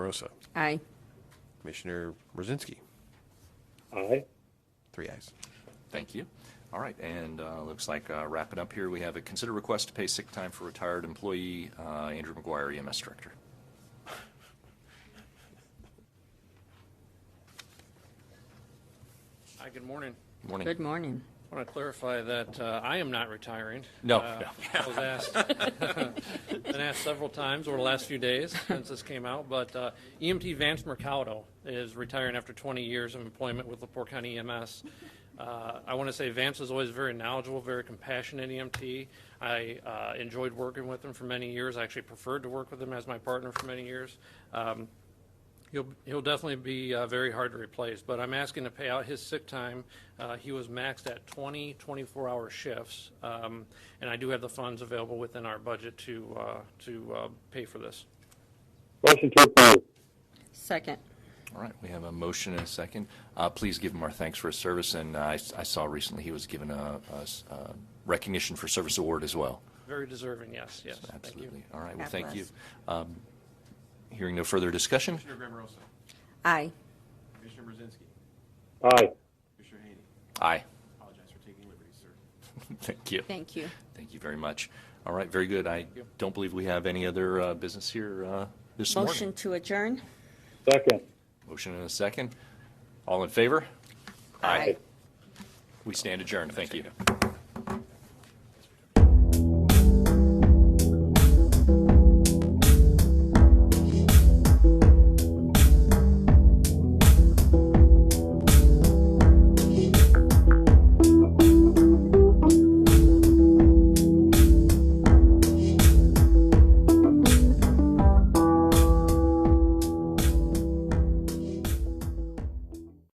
Rosa. Aye. Commissioner Rosinski. Aye. Three ayes. Thank you. All right, and uh, looks like uh, wrapping up here, we have a consider request to pay sick time for retired employee uh, Andrew McGuire, EMS Director. Hi, good morning. Morning. Good morning. I want to clarify that uh, I am not retiring. No, Uh, no. I was asked, been asked several times over the last few days since this came out, but uh, EMT Vance Mercado is retiring after 20 years of employment with Lepore County EMS. Uh, I want to say Vance was always very knowledgeable, very compassionate EMT. I uh, enjoyed working with him for many years. I actually preferred to work with him as my partner for many years. Um, He'll, he'll definitely be uh, very hard to replace, but I'm asking to pay out his sick time. Uh, He was maxed at 20, 24-hour shifts, um, and I do have the funds available within our budget to, uh, to uh, pay for this. Motion to approve. Second. All right, we have a motion and a second. Uh, Please give him our thanks for his service, and uh, I I saw recently he was given a a s- a recognition for service award as well. Very deserving, yes, yes. Thank you. Absolutely. All right, well, God thank you. bless. Um, Hearing no further discussion, Commissioner Graham Rosa. Aye. Commissioner Rosinski. Aye. Commissioner Haney. aye. Apologize for taking liberties, sir. Thank you. Thank you. Thank you very much. All right, very good. I don't believe we have any other uh, business here uh, this morning. Motion to adjourn? Second. Motion and a second. All in favor? Aye. We stand adjourned. Thank you.